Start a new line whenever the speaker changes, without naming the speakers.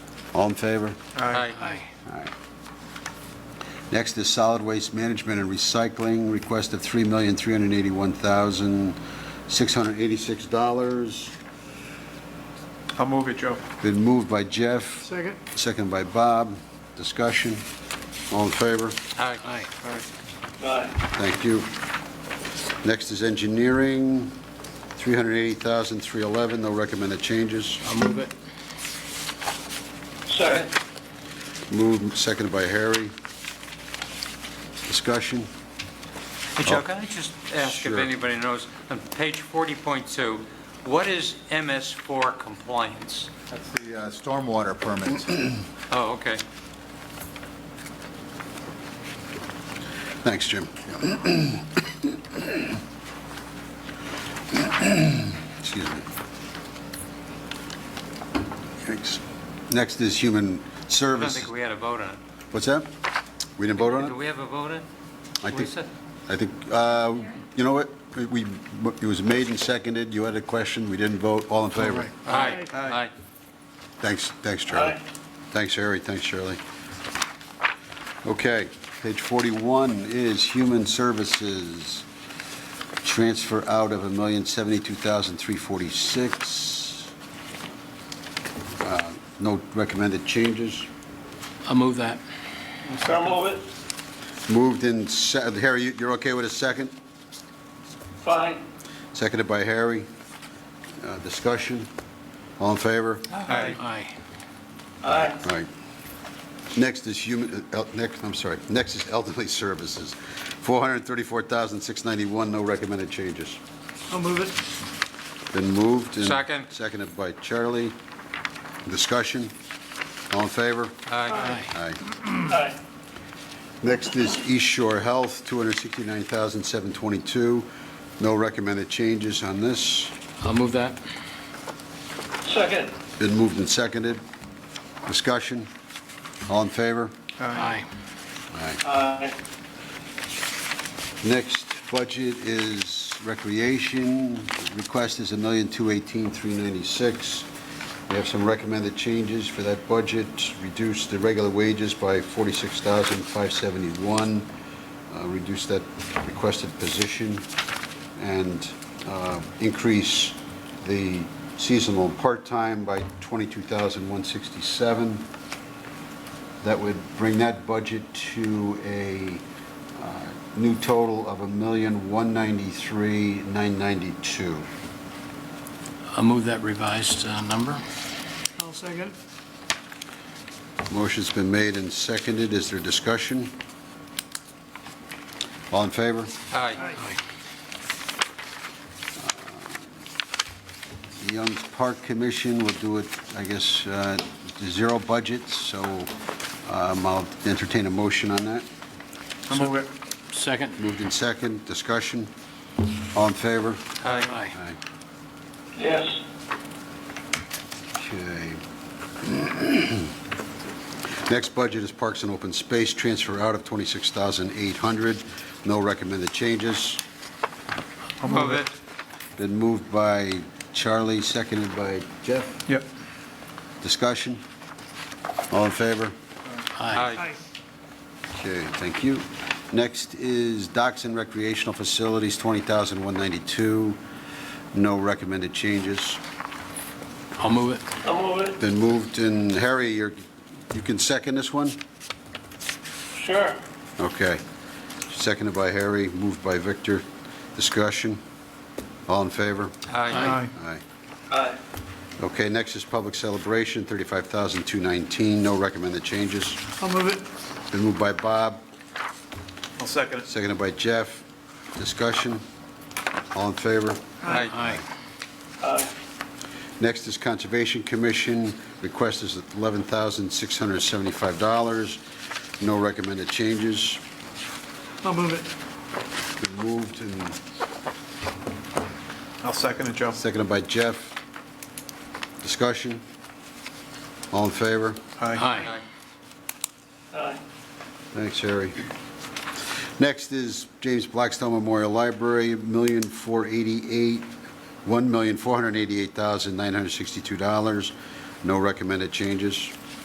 All in favor?
Aye.
Next is solid waste management and recycling, request of $3,381,686.
I'll move it, Joe.
Been moved by Jeff,
Second?
second by Bob. Discussion? All in favor?
Aye. Aye.
Thank you. Next is engineering, $380,311, no recommended changes.
I'll move it.
Second.
Moved, seconded by Harry. Discussion?
Hey, Joe, can I just ask if
Sure.
anybody knows, on page 40.2, what is MS4 compliance?
That's the uh, stormwater permits.
Oh, okay.
Thanks, Jim. Excuse me. Thanks. Next is human
I don't
service.
think we had a vote on it.
What's that? We didn't vote on
Do
it?
we have a vote on it?
I think-
Lisa?
I think, uh, you know what? We, it was made and seconded. You had a question. We didn't vote. All in favor?
Aye. Aye.
Thanks, thanks, Charlie. Thanks, Harry, thanks, Shirley. Okay, page 41 is Human Services, transfer out of $1,072,346. Uh, No recommended changes.
I'll move that.
So move it,
Moved in, se- Harry, you- you're okay with a second?
fine.
Seconded by Harry. Uh, Discussion? All in favor?
Aye.
Aye.
Aye.
All right. Next is human, uh, el- next, I'm sorry, next is elderly services, 434,691, no recommended changes.
I'll move it.
Been moved and...
Second.
Seconded by Charlie. Discussion? All in favor?
Aye.
Aye.
Aye.
Next is East Shore Health, 269,722, no recommended changes on this.
I'll move that.
Second.
Been moved and seconded. Discussion? All in favor?
Aye.
Aye.
Aye.
Next budget is recreation. Request is $1,218,396. We have some recommended changes for that budget. Reduce the regular wages by $46,571. uh, Reduce that requested position and uh, increase the seasonal part-time by $22,167. That would bring that budget to a uh, new total of $1,193,992.
I'll move that revised uh, number.
I'll second.
Motion's been made and seconded. Is there discussion? All in favor?
Aye.
The Young's Park Commission will do it, I guess, uh, zero budget, so um, I'll entertain a motion on that.
I'll move it.
Second.
Moved in second, discussion. All in favor?
Aye.
Aye.
Aye.
Yes.
Okay. Next budget is Parks and Open Space, transfer out of 26800 no recommended changes.
I'll
Move it.
Been moved by Charlie, seconded by Jeff.
Yep.
Discussion? All in favor?
Aye.
Okay, thank you. Next is Docks and Recreational Facilities, 20192 no recommended changes.
I'll move it.
So move it,
Been moved, and Harry, you're- you can second this one?
sure.
Okay. Seconded by Harry, moved by Victor. Discussion? All in favor?
Aye.
Aye.
Aye.
Aye.
Okay, next is public celebration, 35219 no recommended changes.
I'll move it.
Been moved by Bob,
I'll second it.
seconded by Jeff. Discussion? All in favor?
Aye.
Aye.
Aye.
Next is Conservation Commission, request is $11,675, no recommended changes.
I'll move it.
Been moved and
I'll second it, Joe.
Seconded by Jeff. Discussion? All in favor?
Aye.
Aye.
Aye.
Thanks, Harry. Next is James Blackstone Memorial Library, million four eighty-eight, one million four hundred eighty-eight thousand nine hundred sixty-two dollars. No recommended changes.